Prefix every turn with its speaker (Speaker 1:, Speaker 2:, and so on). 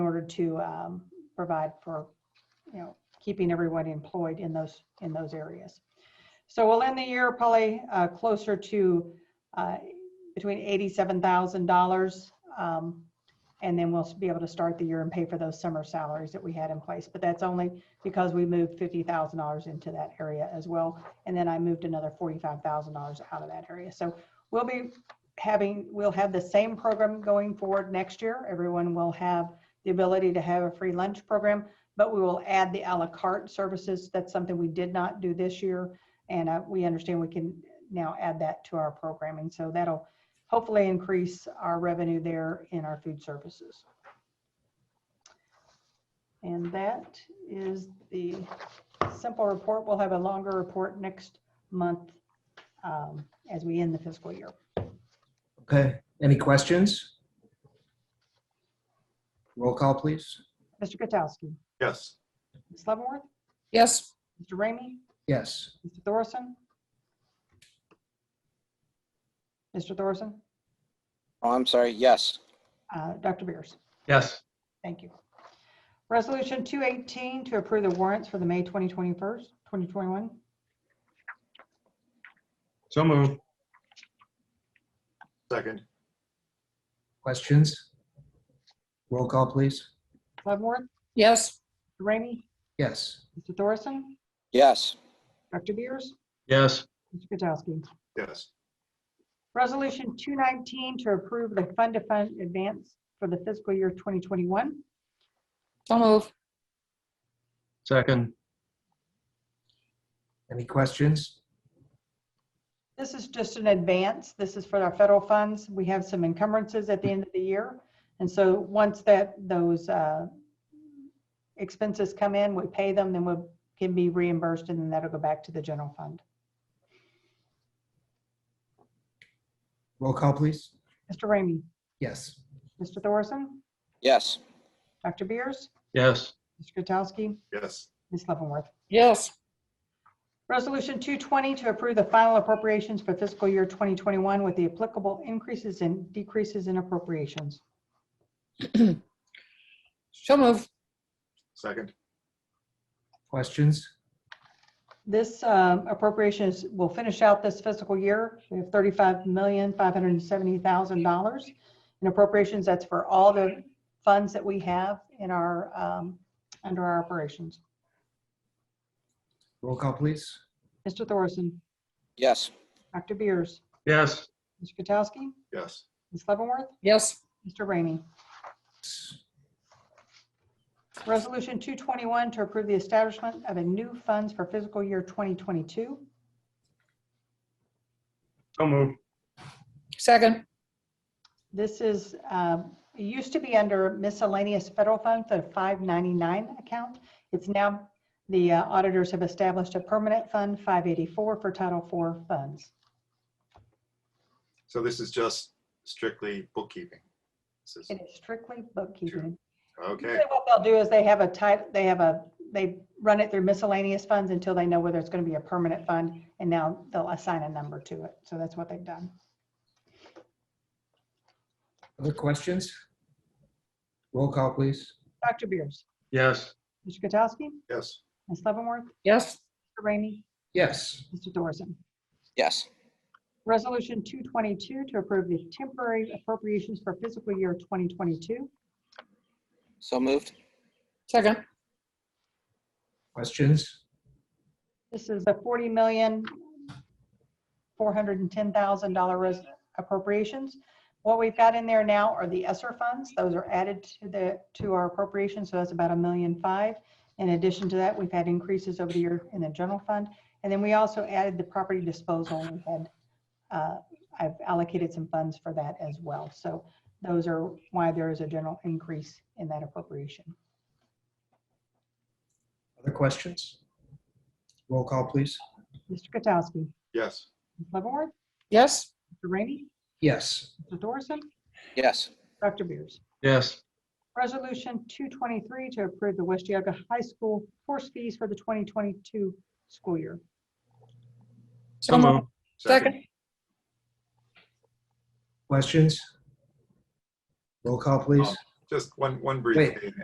Speaker 1: order to um, provide for, you know, keeping everyone employed in those, in those areas. So we'll end the year probably uh, closer to uh, between $87,000. um, And then we'll be able to start the year and pay for those summer salaries that we had in place. But that's only because we moved $50,000 into that area as well. And then I moved another $45,000 out of that area. So we'll be having, we'll have the same program going forward next year. Everyone will have the ability to have a free lunch program, but we will add the à la carte services. That's something we did not do this year. And uh, we understand we can now add that to our programming. So that'll hopefully increase our revenue there in our food services. And that is the simple report. We'll have a longer report next month um, as we end the fiscal year.
Speaker 2: Okay, any questions? Roll call, please.
Speaker 1: Mr. Katsowski,
Speaker 3: Yes.
Speaker 1: Ms. Leavenworth,
Speaker 4: Yes,
Speaker 1: Mr. Ramey,
Speaker 2: Yes.
Speaker 1: Mr. Thorson? Mr. Thorson?
Speaker 5: Oh, I'm sorry, yes.
Speaker 1: Uh, Dr. Beers?
Speaker 3: Yes.
Speaker 1: Thank you. Resolution 218 to approve the warrants for the May 2021, 2021.
Speaker 3: So move. Second.
Speaker 2: Questions? Roll call, please.
Speaker 1: Leavenworth,
Speaker 4: yes,
Speaker 1: Mr. Ramey,
Speaker 2: Yes.
Speaker 1: Mr. Thorson,
Speaker 5: Yes,
Speaker 1: Dr. Beers,
Speaker 3: Yes.
Speaker 1: Mr. Katsowski.
Speaker 3: Yes.
Speaker 1: Resolution 219 to approve the fund-to-fund advance for the fiscal year 2021.
Speaker 4: so move.
Speaker 3: Second.
Speaker 2: Any questions?
Speaker 1: This is just an advance. This is for our federal funds. We have some encumbrances at the end of the year. And so once that, those uh, expenses come in, we pay them, then we can be reimbursed and then that'll go back to the general fund.
Speaker 2: Roll call, please.
Speaker 1: Mr. Ramey?
Speaker 2: Yes.
Speaker 1: Mr. Thorson?
Speaker 5: yes,
Speaker 1: Dr. Beers?
Speaker 3: Yes.
Speaker 1: Mr. Katsowski?
Speaker 3: Yes.
Speaker 1: Ms. Leavenworth?
Speaker 4: Yes,
Speaker 1: Resolution 220 to approve the final appropriations for fiscal year 2021 with the applicable increases and decreases in appropriations.
Speaker 4: so move.
Speaker 3: Second.
Speaker 2: Questions?
Speaker 1: This um, appropriations will finish out this fiscal year. We have $35,570,000 in appropriations. That's for all the funds that we have in our, um, under our operations.
Speaker 2: Roll call, please.
Speaker 1: Mr. Thorson,
Speaker 5: yes,
Speaker 1: Dr. Beers,
Speaker 3: Yes.
Speaker 1: Mr. Katsowski,
Speaker 3: Yes.
Speaker 1: Ms. Leavenworth,
Speaker 4: Yes,
Speaker 1: Mr. Ramey. Resolution 221 to approve the establishment of a new funds for fiscal year 2022.
Speaker 3: So move.
Speaker 4: second.
Speaker 1: This is, um, it used to be under miscellaneous federal funds, the 599 account. It's now, the uh, auditors have established a permanent fund, 584, for Title IV funds.
Speaker 3: So this is just strictly bookkeeping. This is,
Speaker 1: It is strictly bookkeeping.
Speaker 3: okay,
Speaker 1: Usually What they'll do is they have a type, they have a, they run it through miscellaneous funds until they know whether it's going to be a permanent fund, and now they'll assign a number to it. So that's what they've done.
Speaker 2: Other questions? Roll call, please.
Speaker 1: Dr. Beers?
Speaker 3: yes.
Speaker 1: Mr. Katsowski?
Speaker 3: Yes.
Speaker 1: Ms. Leavenworth?
Speaker 4: Yes,
Speaker 1: Mr. Rainey?
Speaker 2: Yes.
Speaker 1: Mr. Thorson?
Speaker 5: yes,
Speaker 1: Resolution 222 to approve the temporary appropriations for fiscal year 2022.
Speaker 5: so moved.
Speaker 4: second.
Speaker 2: Questions?
Speaker 1: This is a $40,410,000 res- appropriations. What we've got in there now are the ESSER funds. Those are added to the, to our appropriation, so that's about a million five. In addition to that, we've had increases over the year in the general fund. And then we also added the property disposal. We had, uh, I've allocated some funds for that as well. So those are why there is a general increase in that appropriation.
Speaker 2: Other questions? Roll call, please.
Speaker 1: Mr. Katsowski,
Speaker 3: Yes.
Speaker 1: Ms. Leavenworth,
Speaker 4: Yes,
Speaker 1: Mr. Rainey,
Speaker 2: Yes.
Speaker 1: Mr. Thorson,
Speaker 5: Yes,
Speaker 1: Dr. Beers.
Speaker 3: Yes.
Speaker 1: Resolution 223 to approve the West Yaga High School course fees for the 2022 school year.
Speaker 4: so move. Second.
Speaker 2: Questions? Roll call, please.
Speaker 3: Just one, one brief
Speaker 2: Wait.
Speaker 3: thing.